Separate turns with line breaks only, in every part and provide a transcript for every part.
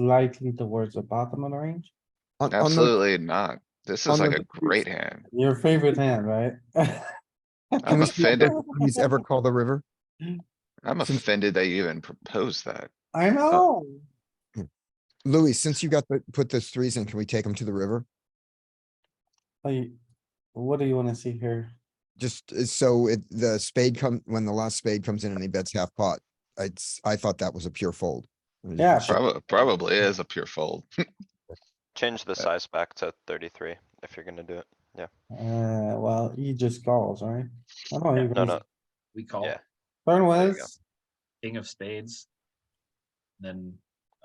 slightly towards the bottom of the range?
On, on the,
Absolutely not. This
on
is like
the
a great hand.
Your favorite hand, right?
I'm offended.
he's ever called the river.
I'm offended that you even proposed that.
I know.
Louis, since you got the, put those threes in, can we take them to the river?
Like, what do you wanna see here?
Just uh, so it, the spade come, when the last spade comes in and he bets half pot, it's, I thought that was a pure fold. I mean,
Yeah,
Probably, probably is a pure fold.
Change the size back to thirty-three if you're gonna do it.
Uh, well, he just calls, right? I don't
No,
even,
no,
We call
Yeah.
turn
There you go.
was,
king of spades. Then,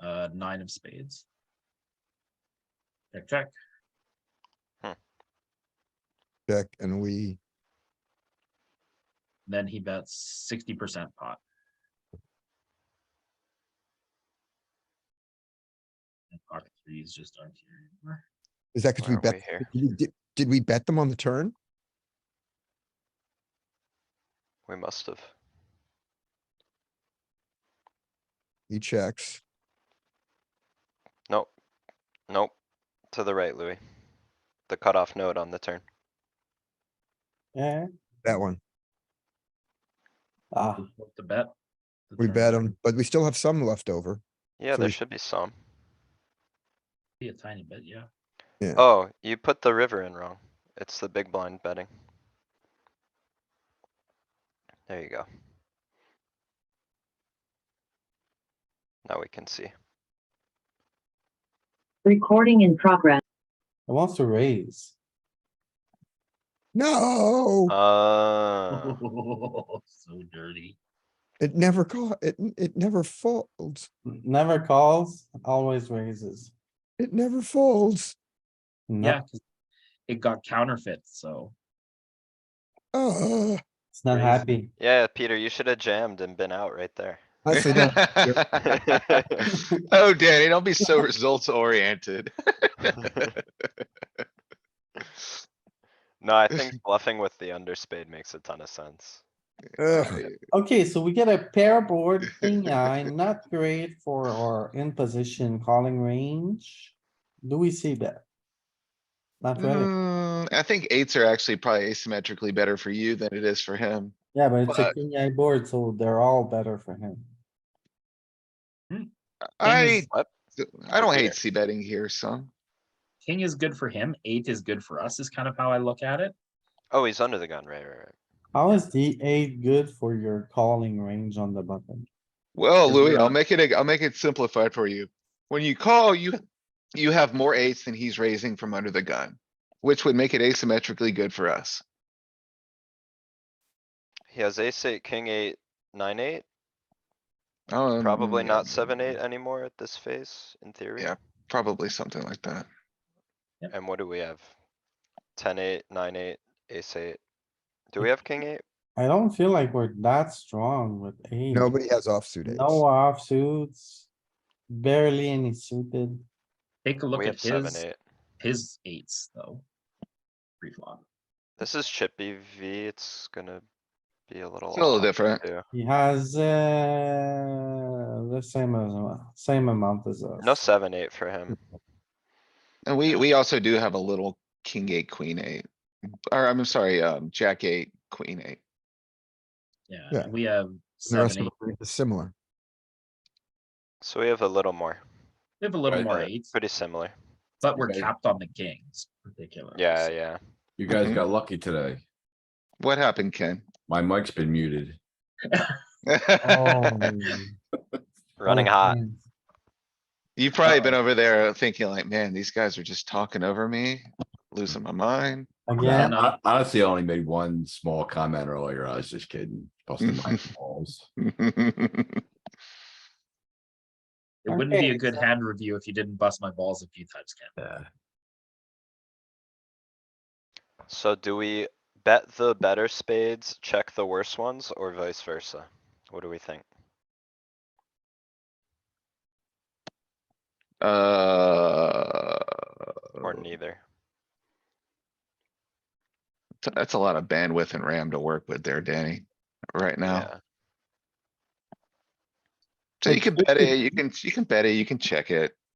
uh, nine of spades. Check, check.
Check and we,
Then he bets sixty percent pot. And pocket threes just aren't here anymore.
is that because we
why aren't
bet,
we here?
did we- did, did we bet them on the turn?
We must have.
He checks.
Nope. Nope. To the right, Louis. The cutoff node on the turn.
yeah,
That one.
ah,
We flip The bet. the
We
turn
bet him, but we still have some left over. So
Yeah, there
we-
should be some.
Be a tiny bit, yeah.
Yeah.
Oh, you put the river in wrong. It's the big blind betting. There you go. Now we can see.
Recording in progress.
it wants to raise.
No,
Uh,
So dirty.
it never caught, it, n- it never folds.
Never calls, always raises.
It never folds.
No,
Yeah, 'cause it got counterfeit, so
Uh,
It's not
Raise.
happy.
yeah, Peter, you should have jammed and been out right there.
honestly, that-
Oh, Danny, don't be so results oriented.
No, I think bluffing with the underspade makes a ton of sense.
ugh.
Okay, so we get a pair board, king eye, not great for our in position calling range. Do we see that? Not really,
Mm, I think eights are actually probably asymmetrically better for you than it is for him.
yeah, but it's a
but-
king eye board, so they're all better for him.
I,
What?
I don't hate
Here.
c betting here, son.
king is good for him, eight is good for us, is kind of how I look at it.
Oh, he's under the gun, right, right, right.
How is the eight good for your calling range on the button?
Well,
Is there
Louis, I'll
a-
make it, a- I'll make it simplified for you. When you call, you, you have more eights than he's raising from under the gun, which would make it asymmetrically good for us.
He has ace eight, king eight, nine eight,
Um,
probably
yeah,
not seven eight anymore at this phase, in theory.
Yeah. Probably something like that.
And what do we have? Ten eight, nine eight, ace eight. Do we have king eight?
I don't feel like we're that strong with eight.
Nobody has offsuit
No
eights.
offsuits, barely any suited.
Take a look
We
at
have seven,
his,
eight.
his eights, though. Pre-flop.
This is chippy V, it's gonna be a little.
It's a little
off
different.
too.
He has, uh, the same as, same amount as us.
No seven, eight for him.
And we, we also do have a little king eight, queen eight. Or I'm sorry, um, jack eight, queen eight.
Yeah,
Yeah.
and we have
The rest
seven,
of
eight,
them are Similar.
So we have a little more,
we have a little
Right,
more
uh,
eights,
pretty similar.
but we're
Okay.
capped on the kings, particular.
Yeah, yeah.
You guys
Mhm.
got lucky today.
What happened, Ken?
My mic's been muted.
Oh,
Running
oh,
hot.
man.
You've probably been over there thinking like, man, these guys are just talking over me, losing my mind.
Again,
And I honestly I only made one small comment earlier. I was just kidding. Busting my balls.
It wouldn't be
Okay,
a good hand review if you didn't bust my balls a few times, Ken.
Yeah.
So do we bet the better spades, check the worse ones, or vice versa? What do we think?
Uh.
Or neither?
t- That's a lot of bandwidth and RAM to work with there, Danny, right now.
Yeah.
So you can bet it, you can, you can bet it, you can check it.